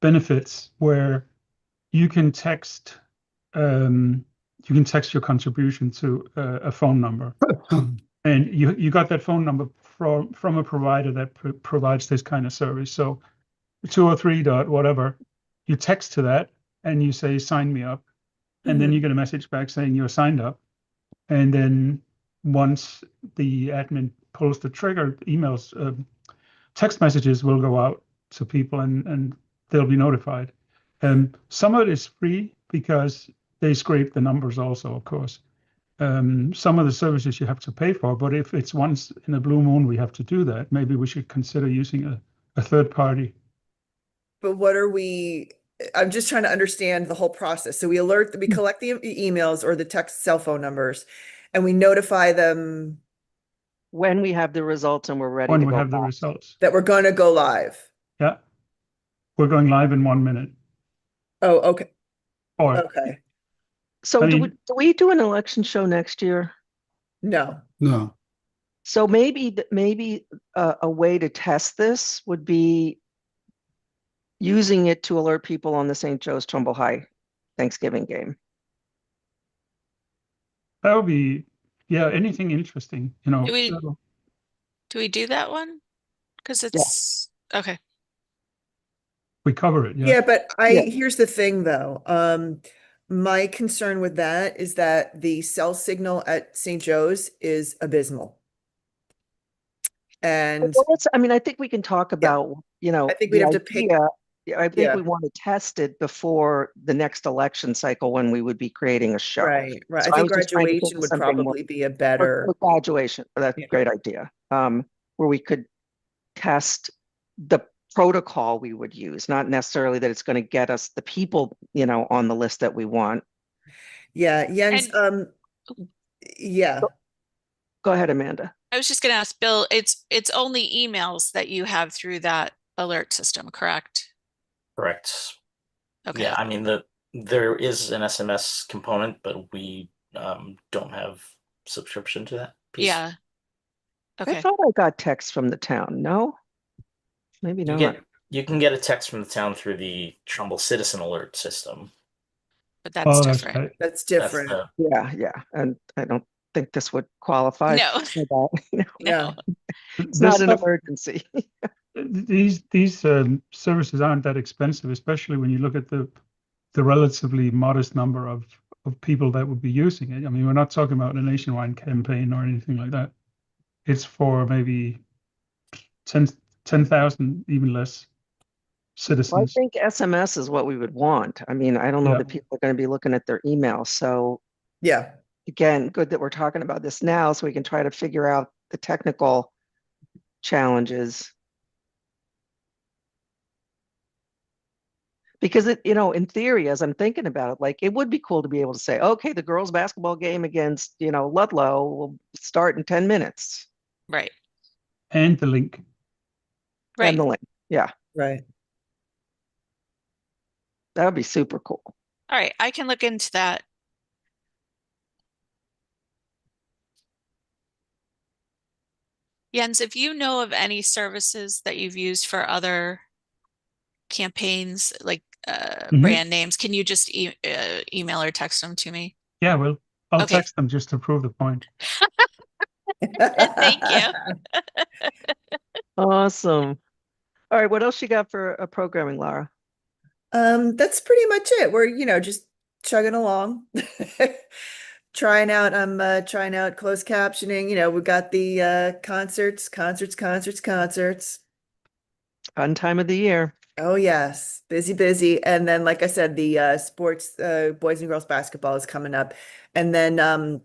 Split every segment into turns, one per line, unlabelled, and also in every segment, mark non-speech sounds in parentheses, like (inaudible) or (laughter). benefits where you can text um, you can text your contribution to uh, a phone number, and you you got that phone number from from a provider that pr- provides this kind of service. So, two or three dot whatever, you text to that and you say sign me up, and then you get a message back saying you're signed up, and then once the admin pulls the trigger, emails, um, text messages will go out to people and and they'll be notified. Um, some of it is free because they scrape the numbers also, of course. Um, some of the services you have to pay for, but if it's once in a blue moon we have to do that, maybe we should consider using a, a third party.
But what are we, I'm just trying to understand the whole process. So we alert,
Mm.
we collect the e- emails or the text cell phone numbers and we notify them
When we have the results and we're ready to
When we
go
have the
back.
results.
that we're gonna go live.
Yeah. We're going live in one minute.
Oh, okay,
Oh.
Or
okay.
So
I
do we,
mean-
do we do an election show next year?
No,
No,
So maybe, th- maybe a, a way to test this would be using it to alert people on the St. Joe's Trumbull High Thanksgiving game.
that would be, yeah, anything interesting, you know.
Do we-
so-
Do we do that one? Because it's, okay,
We cover it, yeah.
yeah, but I,
Yeah.
here's the thing though. Um, my concern with that is that the cell signal at St. Joe's is abysmal. And
Well, let's, I mean, I think we can talk about, you know.
I think we'd
the
have to pick-
idea- Yeah, I think
Yeah.
we want to test it before the next election cycle when we would be creating a show.
Right, right.
So
I
I
think
was just trying to think
graduation
of
would
something more-
probably be a
Or-
better,
or Graduation, that's a
Yeah.
great idea, um, where we could test the protocol we would use, not necessarily that it's going to get us the people, you know, on the list that we want.
yeah, Jens, um,
Oh.
yeah,
Go ahead, Amanda.
I was just gonna ask Bill, it's, it's only emails that you have through that alert system, correct?
Correct.
Okay,
Yeah, I mean, the, there is an SMS component, but we um don't have subscription to that. piece.
yeah.
I
Okay,
thought I got texts from the town, no? Maybe
You
not.
get, you can get a text from the town through the Trumbull Citizen Alert system.
but
Oh,
that's
that's
different.
right.
that's
That's
different.
the-
Yeah, yeah, and I don't think this would qualify.
No.
for that, (laughs) you know,
Yeah.
No.
It's
This
not an
stuff-
emergency.
th- these these um, services aren't that expensive, especially when you look at the the relatively modest number of of people that would be using it. I mean, we're not talking about a nationwide campaign or anything like that. It's for maybe 10 10,000, even less
Well, I
citizens.
think SMS is what we would want. I mean, I don't know
Yeah.
that people are going to be looking at their email, so
Yeah,
again, good that we're talking about this now so we can try to figure out the technical challenges. Because it, you know, in theory, as I'm thinking about it, like it would be cool to be able to say, okay, the girls' basketball game against, you know, Ludlow will start in 10 minutes.
(laughs) Right,
And the link.
right.
And the link.
right. (laughs)
That would be super cool.
All right, I can look into that. Jens, if you know of any services that you've used for other campaigns, like uh,
Mhm.
brand names, can you just e- uh, email or text them to me?
Yeah, well, I'll
Okay.
text them just to prove the point.
(laughs) Thank you.
Awesome. All right. What else you got for uh, programming, Laura?
Um, that's pretty much it. We're, you know, just chugging along. (laughs) Trying out, I'm uh trying out closed captioning, you know, we've got the uh concerts, concerts, concerts, concerts.
Fun time of the year.
Oh yes, busy, busy. And then, like I said, the uh, sports, uh, boys and girls basketball is coming up. And then um,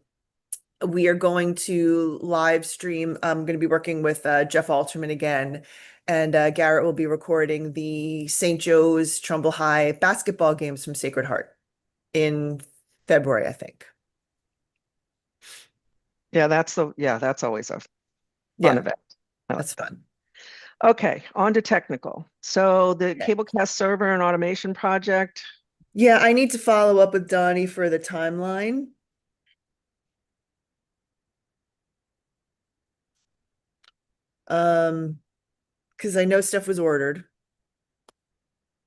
we are going to live stream. I'm going to be working with uh, Jeff Alterman again. And uh, Garrett will be recording the St. Joe's Trumbull High basketball games from Sacred Heart in February, I think.
Yeah, that's the, yeah, that's always a fun
Yeah,
event. I like
that's fun.
Okay, on to technical. So the
Okay.
Cablecast server and automation project,
Yeah, I need to follow up with Donnie for the timeline. Um, because I know stuff was ordered.